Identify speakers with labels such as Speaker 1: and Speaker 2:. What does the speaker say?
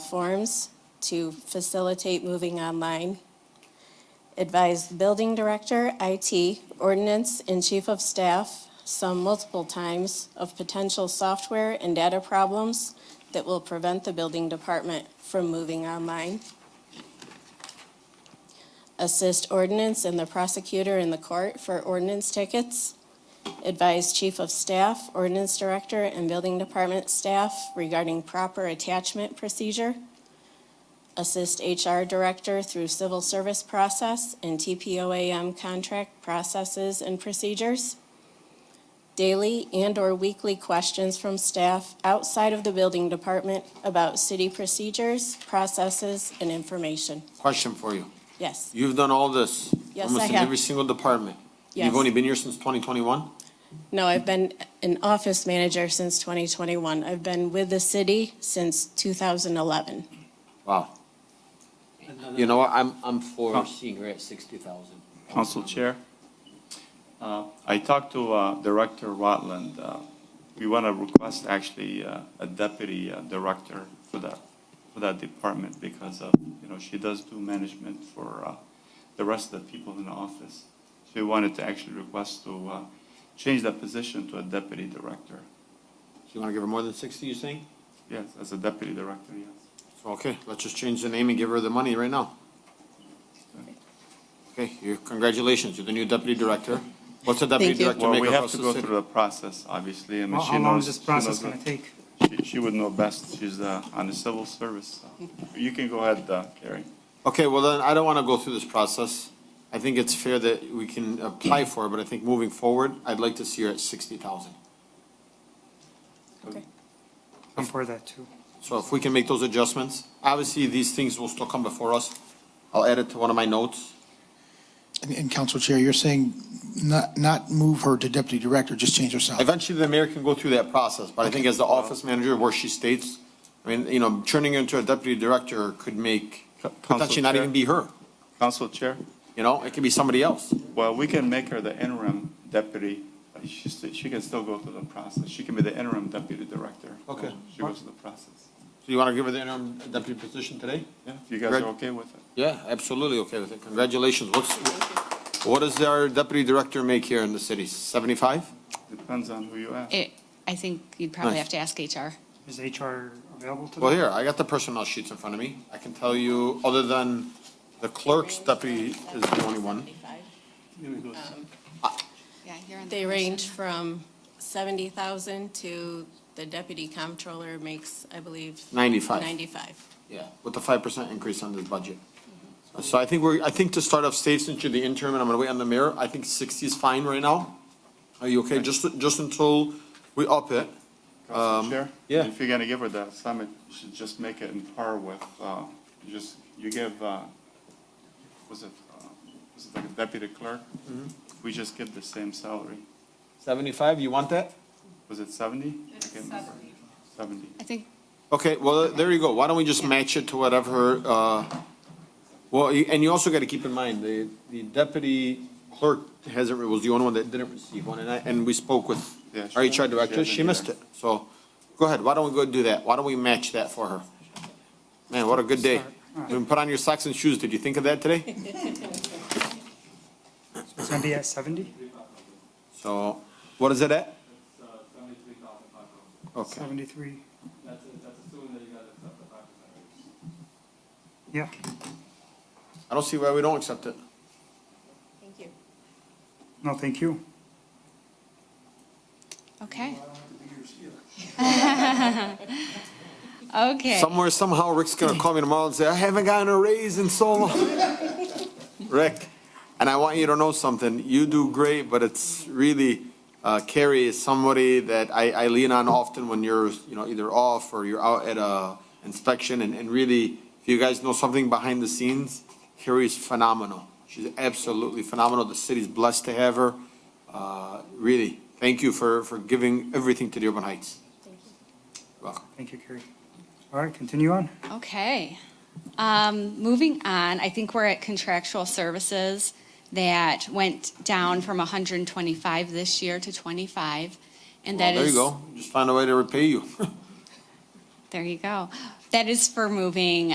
Speaker 1: forms to facilitate moving online. Advised the building director, IT, ordinance, and chief of staff, some multiple times, of potential software and data problems that will prevent the building department from moving online. Assist ordinance and the prosecutor in the court for ordinance tickets. Advise Chief of Staff, Ordinance Director, and Building Department staff regarding proper attachment procedure. Assist HR Director through civil service process and TPOAM contract processes and procedures. Daily and/or weekly questions from staff outside of the Building Department about city procedures, processes, and information.
Speaker 2: Question for you.
Speaker 1: Yes,
Speaker 2: You've done all this.
Speaker 1: Yes, I
Speaker 2: Almost in
Speaker 1: have.
Speaker 2: every single department.
Speaker 1: Yes.
Speaker 2: You've only been here since twenty twenty-one?
Speaker 1: no, I've been an office manager since 2021. I've been with the city since 2011.
Speaker 2: Wow. You know, what? I'm, I'm for seeing her at sixty thousand.
Speaker 3: Council Chair, uh, I talked to uh, Director Rutland. Uh, We want to request actually uh, a deputy uh, director for that, for that department because of, you know, she does do management for uh, the rest of the people in the office. So we wanted to actually request to uh, change that position to a deputy director.
Speaker 2: You wanna give her more than sixty, you saying?
Speaker 3: Yes, as a deputy director, yes.
Speaker 2: Okay, let's just change the name and give her the money right now. Okay, you, congratulations, you're the new deputy director. What's a deputy
Speaker 1: Thank you.
Speaker 2: director
Speaker 3: Well,
Speaker 2: make
Speaker 3: we have
Speaker 2: across
Speaker 3: to
Speaker 2: the
Speaker 3: go
Speaker 2: city?
Speaker 3: through the process, obviously. I mean,
Speaker 4: How,
Speaker 3: she
Speaker 4: how long
Speaker 3: knows-
Speaker 4: is this
Speaker 3: she knows
Speaker 4: process
Speaker 3: what-
Speaker 4: gonna take?
Speaker 3: She, she would know best. She's uh, on the civil service. You can go ahead, uh, Carrie.
Speaker 2: Okay, well then, I don't wanna go through this process. I think it's fair that we can apply for it, but I think moving forward, I'd like to see her at sixty thousand.
Speaker 1: Okay.
Speaker 4: I'm for that too.
Speaker 2: So if we can make those adjustments, obviously, these things will still come before us. I'll add it to one of my notes.
Speaker 5: And- And Council Chair, you're saying not, not move her to deputy director, just change her salary?
Speaker 2: Eventually, the mayor can go through that process, but I think as the office manager, where she states, I mean, you know, turning her into a deputy director could make,
Speaker 3: Co- Council
Speaker 2: potentially not
Speaker 3: Chair?
Speaker 2: even be her,
Speaker 3: Council Chair,
Speaker 2: you know, it could be somebody else.
Speaker 3: well, we can make her the interim deputy. She, st- she can still go through the process. She can be the interim deputy director.
Speaker 2: Okay.
Speaker 3: She goes through the process.
Speaker 2: So you want to give her the interim deputy position today?
Speaker 3: Yeah, if you guys
Speaker 2: Greg?
Speaker 3: are okay with it.
Speaker 2: Yeah, absolutely, okay with it, congratulations. What's, what does our deputy director make here in the city, seventy-five?
Speaker 3: Depends on who you ask.
Speaker 6: It, I think you'd probably
Speaker 2: Nice.
Speaker 6: have to ask HR.
Speaker 4: Is HR available to them?
Speaker 2: Well, here, I got the personnel sheets in front of me. I can tell you, other than the clerk's deputy is the only one.
Speaker 6: Yeah, you're on the
Speaker 1: They
Speaker 6: commission.
Speaker 1: range from seventy thousand to the deputy comptroller makes, I believe.
Speaker 2: 95.
Speaker 1: Ninety-five.
Speaker 2: Yeah. With the five percent increase on this budget. So I think we're, I think to start off safe, since you're the interim and I'm gonna wait on the mayor, I think sixty is fine right now. Are you okay? Just, just until we up it.
Speaker 3: Council Chair?
Speaker 2: yeah.
Speaker 3: If you're gonna give her that summit, you should just make it in par with, uh, you just, you give, uh, was it, uh, was it like a deputy clerk?
Speaker 2: Mm-hmm.
Speaker 3: We just give the same salary.
Speaker 2: Seventy-five, you want that?
Speaker 3: Was it seventy? seventy. Seventy.
Speaker 6: I think
Speaker 2: Okay, well, there you go. Why don't we just match it to whatever, uh, well, you- and you also gotta keep in mind, the, the deputy clerk hasn't, was the only one that didn't receive one, and I, and we spoke with
Speaker 3: Yeah,
Speaker 2: our
Speaker 3: she-
Speaker 2: HR director,
Speaker 3: she
Speaker 2: she
Speaker 3: hasn't
Speaker 2: missed
Speaker 3: either.
Speaker 2: it. So, go ahead, why don't we go do that? Why don't we match that for her? Man, what a good day. You can put on your socks and shoes. Did you think of that today?
Speaker 4: It's gonna be at seventy?
Speaker 2: So, what is it at? Okay,
Speaker 4: Seventy-three?
Speaker 7: That's, that's assuming that you guys accept the five percent raise.
Speaker 4: Yeah.
Speaker 2: I don't see why we don't accept it.
Speaker 1: Thank you.
Speaker 4: No, thank you.
Speaker 6: okay. okay.
Speaker 2: Somewhere, somehow, Rick's gonna call me tomorrow and say, I haven't gotten a raise in so long. Rick, and I want you to know something, you do great, but it's really, uh, Carrie is somebody that I, I lean on often when you're, you know, either off or you're out at a inspection, and, and really, if you guys know something behind the scenes, Carrie's phenomenal. She's absolutely phenomenal, the city's blessed to have her. Uh, really, thank you for, for giving everything to the Urban Heights. You're Welcome.
Speaker 4: Thank you, Carrie. All right, continue on.
Speaker 6: Okay. Um, moving on, I think we're at contractual services that went down from 125 this year to 25. And
Speaker 2: Well,
Speaker 6: that
Speaker 2: Oh, there you
Speaker 6: is,
Speaker 2: go. Just find a way to repay you.
Speaker 6: there you go. That is for moving